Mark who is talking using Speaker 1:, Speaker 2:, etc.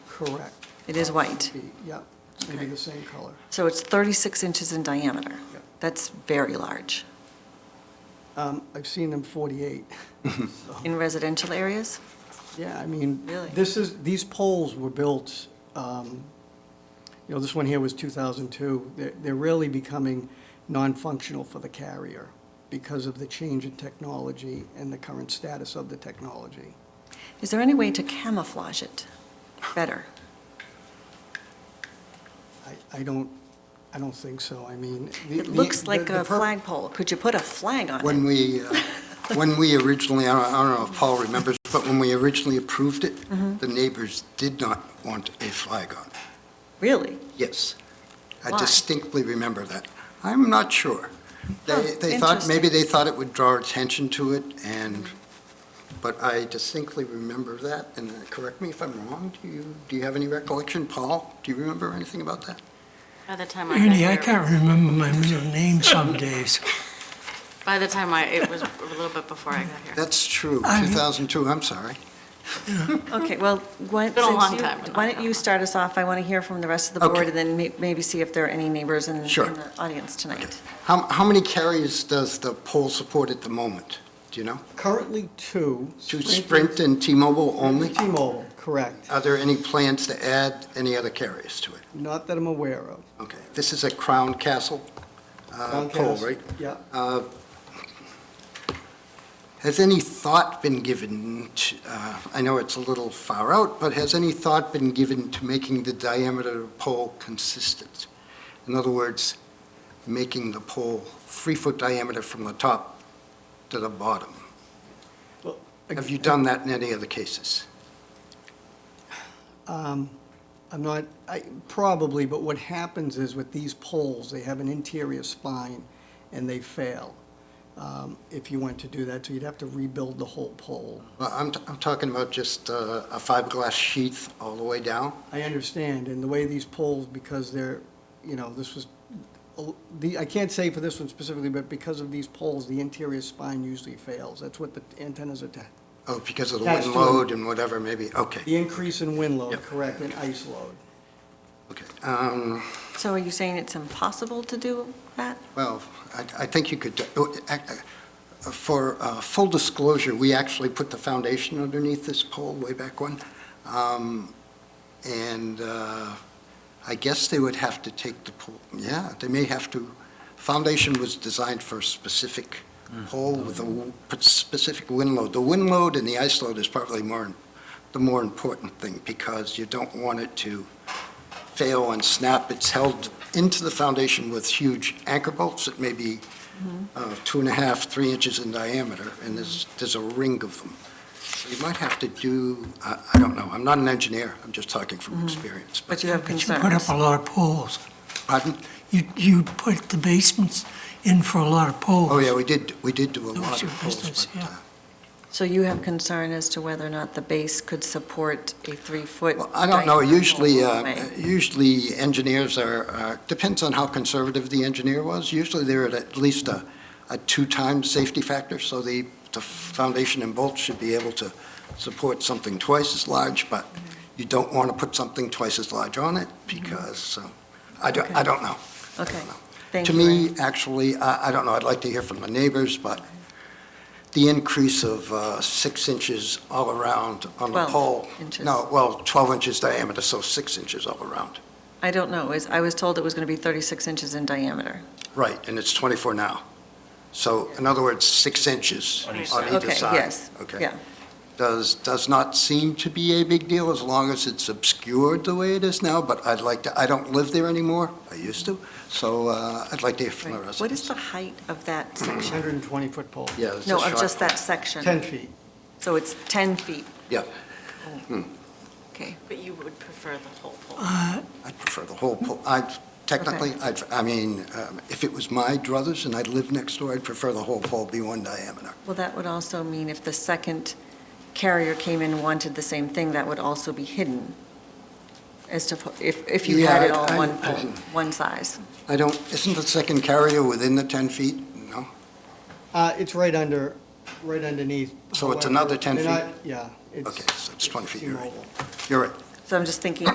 Speaker 1: Correct.
Speaker 2: It is white.
Speaker 1: Be- Yep, it's going to be the same color.
Speaker 2: So it's 36 inches in diameter.
Speaker 1: Yeah.
Speaker 2: That's very large.
Speaker 1: Um, I've seen them 48.
Speaker 3: Uh-huh.
Speaker 2: In residential areas?
Speaker 1: Yeah, I mean,
Speaker 2: Really?
Speaker 1: this is, these poles were built, um, you know, this one here was 2002. They're- They're really becoming non-functional for the carrier because of the change in technology and the current status of the technology.
Speaker 2: Is there any way to camouflage it better?
Speaker 1: I- I don't, I don't think so. I mean. the-
Speaker 2: It
Speaker 1: the-
Speaker 2: looks
Speaker 1: the-
Speaker 2: like
Speaker 1: the
Speaker 2: a
Speaker 1: pur-
Speaker 2: flagpole. Could you put a flag on it?
Speaker 3: When we, uh, when we originally, I don't- I don't know if Paul remembers, but when we originally approved it,
Speaker 2: Mm-hmm.
Speaker 3: the neighbors did not want a flag on. it.
Speaker 2: Really?
Speaker 3: Yes. I
Speaker 2: Why?
Speaker 3: distinctly remember that. I'm not sure. They,
Speaker 2: Huh,
Speaker 3: they thought, maybe
Speaker 2: interesting.
Speaker 3: they thought it would draw attention to it and, but I distinctly remember that. And uh, correct me if I'm wrong, do you, do you have any recollection, Paul? Do you remember anything about that?
Speaker 4: By the time I got
Speaker 5: Ernie,
Speaker 4: here,
Speaker 5: I can't remember my middle name some days.
Speaker 4: By the time I, it was a little bit before I got here.
Speaker 3: That's true,
Speaker 5: I'm-
Speaker 3: 2002, I'm sorry.
Speaker 2: Okay, well, why
Speaker 4: been a
Speaker 2: since
Speaker 4: long
Speaker 2: you-
Speaker 4: time, but
Speaker 2: why
Speaker 4: not
Speaker 2: don't
Speaker 4: that
Speaker 2: you
Speaker 4: long.
Speaker 2: start us off? I want to hear from the rest of the board
Speaker 3: Okay.
Speaker 2: and then may- maybe see if there are any neighbors in in
Speaker 3: Sure.
Speaker 2: the audience tonight.
Speaker 3: How, how many carriers does the poll support at the moment? Do you know?
Speaker 1: Currently two.
Speaker 3: To Sprint and T-Mobile only?
Speaker 1: T-Mobile, correct.
Speaker 3: Are there any plans to add any other carriers to it?
Speaker 1: Not that I'm aware of.
Speaker 3: Okay, this is a Crown Castle uh, poll,
Speaker 1: Comcast,
Speaker 3: right?
Speaker 1: Yeah,
Speaker 3: Uh, Has any thought been given, to- uh, I know it's a little far out, but has any thought been given to making the diameter of pole consistent? In other words, making the pole three-foot diameter from the top to the bottom?
Speaker 1: Well,
Speaker 3: Have you done that in any other cases?
Speaker 1: I'm not, I, probably, but what happens is with these poles, they have an interior spine and they fail. um, If you went to do that, so you'd have to rebuild the whole pole.
Speaker 3: Well, I'm, I'm talking about just uh, a fiberglass sheath all the way down?
Speaker 1: I understand, and the way these poles, because they're, you know, this was, the, I can't say for this one specifically, but because of these poles, the interior spine usually fails. That's what the antennas are, ta-
Speaker 3: Oh, because of the
Speaker 1: That's
Speaker 3: wind
Speaker 1: true.
Speaker 3: load and whatever, maybe, okay,
Speaker 1: the increase in wind load,
Speaker 3: Yep.
Speaker 1: correct, and ice load.
Speaker 3: okay. Um,
Speaker 2: So are you saying it's impossible to do that?
Speaker 3: Well, I, I think you could, oh, ac- uh, for uh, full disclosure, we actually put the foundation underneath this pole way back when. Um, And uh, I guess they would have to take the pole, yeah, they may have to, foundation was designed for a specific pole with a w- specific wind load. The wind load and the ice load is probably more, im- the more important thing, because you don't want it to fail and snap. It's held into the foundation with huge anchor bolts that may be
Speaker 5: Mm-hmm.
Speaker 3: uh, two and a half, three inches in diameter, and there's, there's a ring of them. So You might have to do, I I don't know, I'm not an engineer, I'm just talking
Speaker 5: Mm-hmm.
Speaker 3: from experience.
Speaker 2: But you have
Speaker 5: But you put up
Speaker 2: concerns.
Speaker 5: a lot of poles.
Speaker 3: Pardon?
Speaker 5: You, you put the basements in for a lot of poles.
Speaker 3: Oh, yeah, we did, we did do a
Speaker 5: That was
Speaker 3: lot of
Speaker 5: your
Speaker 3: polls,
Speaker 5: business,
Speaker 3: but, uh,
Speaker 5: yeah.
Speaker 2: So you have concern as to whether or not the base could support a three-foot?
Speaker 3: well, I don't know,
Speaker 2: diagonal
Speaker 3: usually, uh,
Speaker 2: way?
Speaker 3: usually engineers are, uh, depends on how conservative the engineer was. Usually they're at at least a, a two-time safety factor, so the, the foundation and bolts should be able to support something twice as large, but you don't want to put something twice as large on it
Speaker 2: Mm-hmm.
Speaker 3: because, uh, I don't, I don't know.
Speaker 2: Okay, thank
Speaker 3: To
Speaker 2: you. Ernie.
Speaker 3: me, actually, I, I don't know, I'd like to hear from the neighbors, but the increase of uh, six inches all around on the
Speaker 2: 12
Speaker 3: pole.
Speaker 2: inches.
Speaker 3: No, well, 12 inches diameter, so six inches all around.
Speaker 2: I don't know, is, I was told it was going to be 36 inches in diameter.
Speaker 3: Right, and it's 24 now. So in other words, six inches on
Speaker 4: On
Speaker 3: either
Speaker 4: each
Speaker 3: side.
Speaker 4: side.
Speaker 2: Okay, yes,
Speaker 3: Okay.
Speaker 2: yeah.
Speaker 3: Does, does not seem to be a big deal as long as it's obscured the way it is now, but I'd like to, I don't live there anymore, I used to, so uh, I'd like to hear from the
Speaker 2: Right.
Speaker 3: residents.
Speaker 2: What is the height of that section?
Speaker 1: 120-foot pole,
Speaker 3: Yeah, it's a
Speaker 2: No,
Speaker 3: short
Speaker 2: of just
Speaker 3: one.
Speaker 2: that section?
Speaker 1: 10 feet.
Speaker 2: So it's 10 feet,
Speaker 3: Yeah.
Speaker 2: okay.
Speaker 4: But you would prefer the whole poll.
Speaker 5: Uh,
Speaker 3: I'd prefer the whole, po- I'd, technically, I'd, I mean, um, if it was my druthers and I'd lived next door, I'd prefer the whole pole be one diameter.
Speaker 2: Well, that would also mean if the second carrier came in and wanted the same thing, that would also be hidden as to, po- if, if you had
Speaker 3: Yeah,
Speaker 2: it all
Speaker 3: I-
Speaker 2: one,
Speaker 3: I-
Speaker 2: pole, one size.
Speaker 3: I don't, isn't the second carrier within the 10 feet? No?
Speaker 1: Uh, it's right under, right underneath.
Speaker 3: So it's
Speaker 1: however,
Speaker 3: another 10
Speaker 1: they're
Speaker 3: feet?
Speaker 1: not- Yeah.
Speaker 3: Okay, so it's 20 feet, you're right.
Speaker 1: mobile.
Speaker 3: You're right.
Speaker 2: So I'm just thinking